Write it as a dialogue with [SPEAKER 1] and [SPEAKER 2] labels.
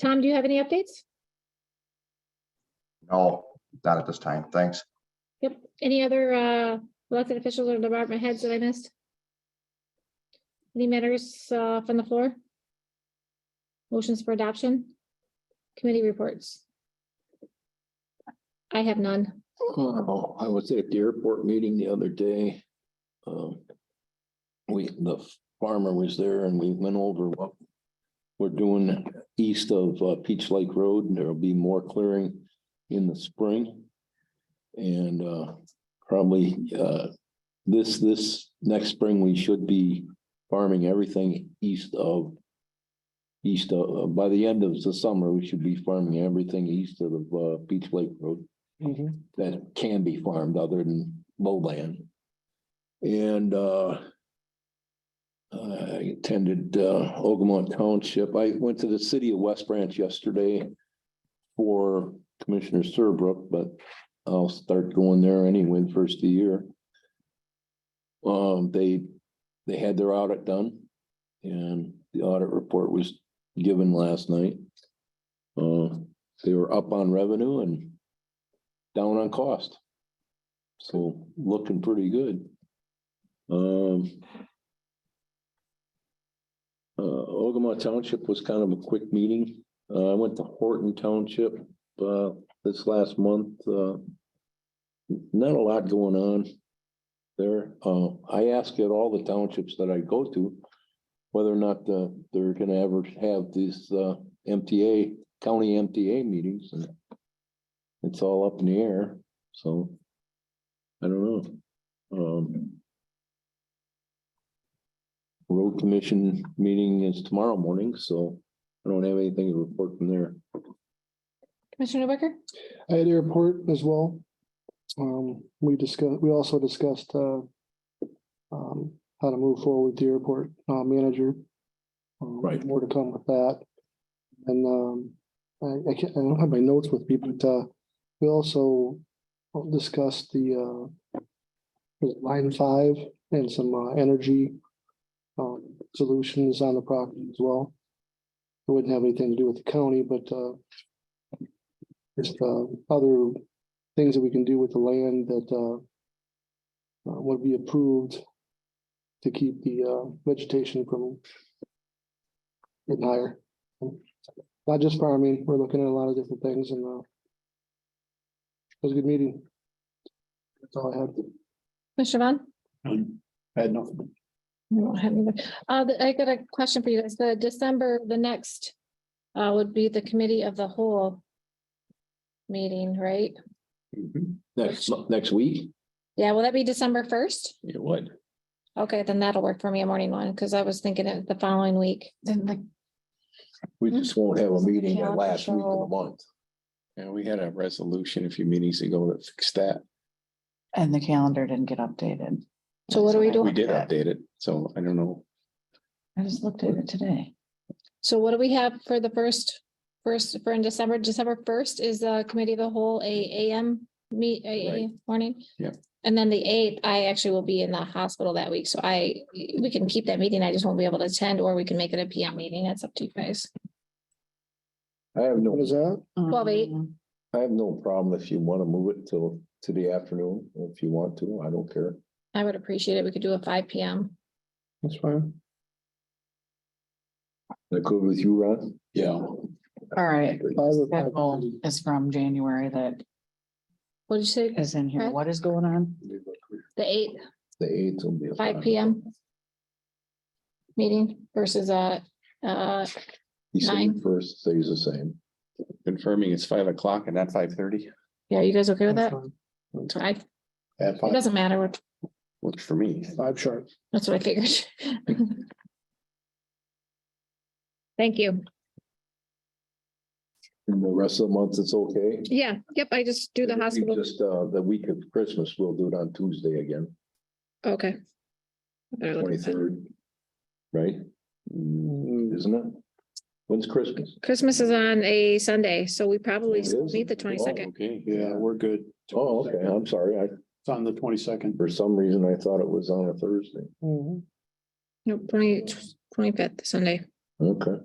[SPEAKER 1] Tom, do you have any updates?
[SPEAKER 2] No, not at this time. Thanks.
[SPEAKER 1] Yep. Any other uh, elected officials or department heads that I missed? Any matters uh, from the floor? Motions for adoption? Committee reports? I have none.
[SPEAKER 3] Oh, I was at the airport meeting the other day. Um, We, the farmer was there and we went over what we're doing east of uh, Peach Lake Road and there'll be more clearing in the spring. And uh, probably uh, this, this next spring, we should be farming everything east of east of, uh, by the end of the summer, we should be farming everything east of uh, Peach Lake Road that can be farmed other than lowland. And uh. I attended uh Ogama Township. I went to the city of West Branch yesterday. For Commissioner Serbrook, but I'll start going there anyway the first of the year. Um, they, they had their audit done. And the audit report was given last night. Uh, they were up on revenue and down on cost. So looking pretty good. Um. Uh, Ogama Township was kind of a quick meeting. Uh, I went to Horton Township, uh, this last month, uh. Not a lot going on there. Uh, I ask at all the townships that I go to. Whether or not, uh, they're gonna ever have these, uh, MTA, county MTA meetings and it's all up in the air, so. I don't know. Um. Road commission meeting is tomorrow morning, so I don't have anything to report from there.
[SPEAKER 1] Commissioner Wicker?
[SPEAKER 4] I had airport as well. Um, we discussed, we also discussed, uh, um, how to move forward with the airport, uh, manager. Um,
[SPEAKER 3] Right.
[SPEAKER 4] More to come with that. And, um, I, I can't, I don't have my notes with me, but, uh, we also discussed the, uh, line five and some, uh, energy, um, solutions on the property as well. It wouldn't have anything to do with the county, but, uh, just uh other things that we can do with the land that uh. uh, Would be approved to keep the uh vegetation from. Getting higher. Not just farming, we're looking at a lot of different things and uh. It was a good meeting. That's all I had.
[SPEAKER 1] Commissioner Vaughn?
[SPEAKER 4] I had nothing.
[SPEAKER 1] I don't have either. Uh, the- I got a question for you. guys. the December, the next uh, would be the committee of the whole meeting, right?
[SPEAKER 3] Mm-hmm. Next, mo- next week?
[SPEAKER 1] Yeah, will that be December first?
[SPEAKER 3] It would.
[SPEAKER 1] Okay, then that'll work for me, a morning one, because I was thinking it the following week.
[SPEAKER 5] Then the,
[SPEAKER 3] We just won't have a meeting that last week of the
[SPEAKER 1] Calendar.
[SPEAKER 3] month.
[SPEAKER 6] Yeah, we had a resolution a few meetings ago that fixed that.
[SPEAKER 5] and the calendar didn't get updated.
[SPEAKER 1] So what do we do?
[SPEAKER 6] We did update it, so I don't know.
[SPEAKER 5] I just looked at it today.
[SPEAKER 1] So what do we have for the first, first, for in December, December first is the committee of the whole, a AM meet, a a-
[SPEAKER 6] Right.
[SPEAKER 1] morning?
[SPEAKER 6] Yep.
[SPEAKER 1] And then the eighth, I actually will be in the hospital that week, so I, we can keep that meeting, I just won't be able to attend, or we can make it a PM meeting, that's up to you guys.
[SPEAKER 3] I have
[SPEAKER 4] What
[SPEAKER 3] no,
[SPEAKER 4] is that?
[SPEAKER 1] Twelve eight.
[SPEAKER 5] Um,
[SPEAKER 3] I have no problem if you want to move it till, to the afternoon, if you want to, I don't care.
[SPEAKER 1] I would appreciate it, we could do a five PM.
[SPEAKER 4] That's fine.
[SPEAKER 3] That good with you, Ron?
[SPEAKER 6] Yeah.
[SPEAKER 5] All right.
[SPEAKER 4] Five or five
[SPEAKER 5] Schedule
[SPEAKER 4] thirty.
[SPEAKER 5] is from January that
[SPEAKER 1] What did you say,
[SPEAKER 5] is in here.
[SPEAKER 1] Right.
[SPEAKER 5] What is going on?
[SPEAKER 1] the eighth,
[SPEAKER 3] The eighth will be. a
[SPEAKER 1] five
[SPEAKER 3] fine.
[SPEAKER 1] PM? Meeting versus a, uh,
[SPEAKER 3] December
[SPEAKER 1] nine.
[SPEAKER 3] first stays the same.
[SPEAKER 6] Confirming it's five o'clock and not five thirty.
[SPEAKER 1] yeah, you guys okay with
[SPEAKER 4] That's
[SPEAKER 1] that?
[SPEAKER 4] fine.
[SPEAKER 1] I, it
[SPEAKER 6] At five,
[SPEAKER 1] doesn't matter, what-
[SPEAKER 6] works for me.
[SPEAKER 4] Five sharp.
[SPEAKER 1] That's what I figured. Thank you.
[SPEAKER 3] And the rest of the month, it's okay.
[SPEAKER 1] Yeah, yep, I just do the
[SPEAKER 3] We
[SPEAKER 1] hospital.
[SPEAKER 3] Just, uh, the week of Christmas, we'll do it on Tuesday again,
[SPEAKER 1] Okay. I better look at that.
[SPEAKER 3] twenty-third. Right? Mm, Isn't it? When's Christmas?
[SPEAKER 1] Christmas is on a Sunday, so we probably
[SPEAKER 3] It
[SPEAKER 1] still
[SPEAKER 3] is?
[SPEAKER 1] meet the
[SPEAKER 3] Oh,
[SPEAKER 1] twenty-second.
[SPEAKER 6] Okay.
[SPEAKER 7] Yeah, we're good.
[SPEAKER 3] Oh, okay, I'm sorry. I,
[SPEAKER 7] It's on the twenty-second.
[SPEAKER 3] for some reason, I thought it
[SPEAKER 4] Mm-hmm.
[SPEAKER 3] was on a Thursday.
[SPEAKER 1] No, twenty, twenty-fifth, Sunday.
[SPEAKER 3] Okay.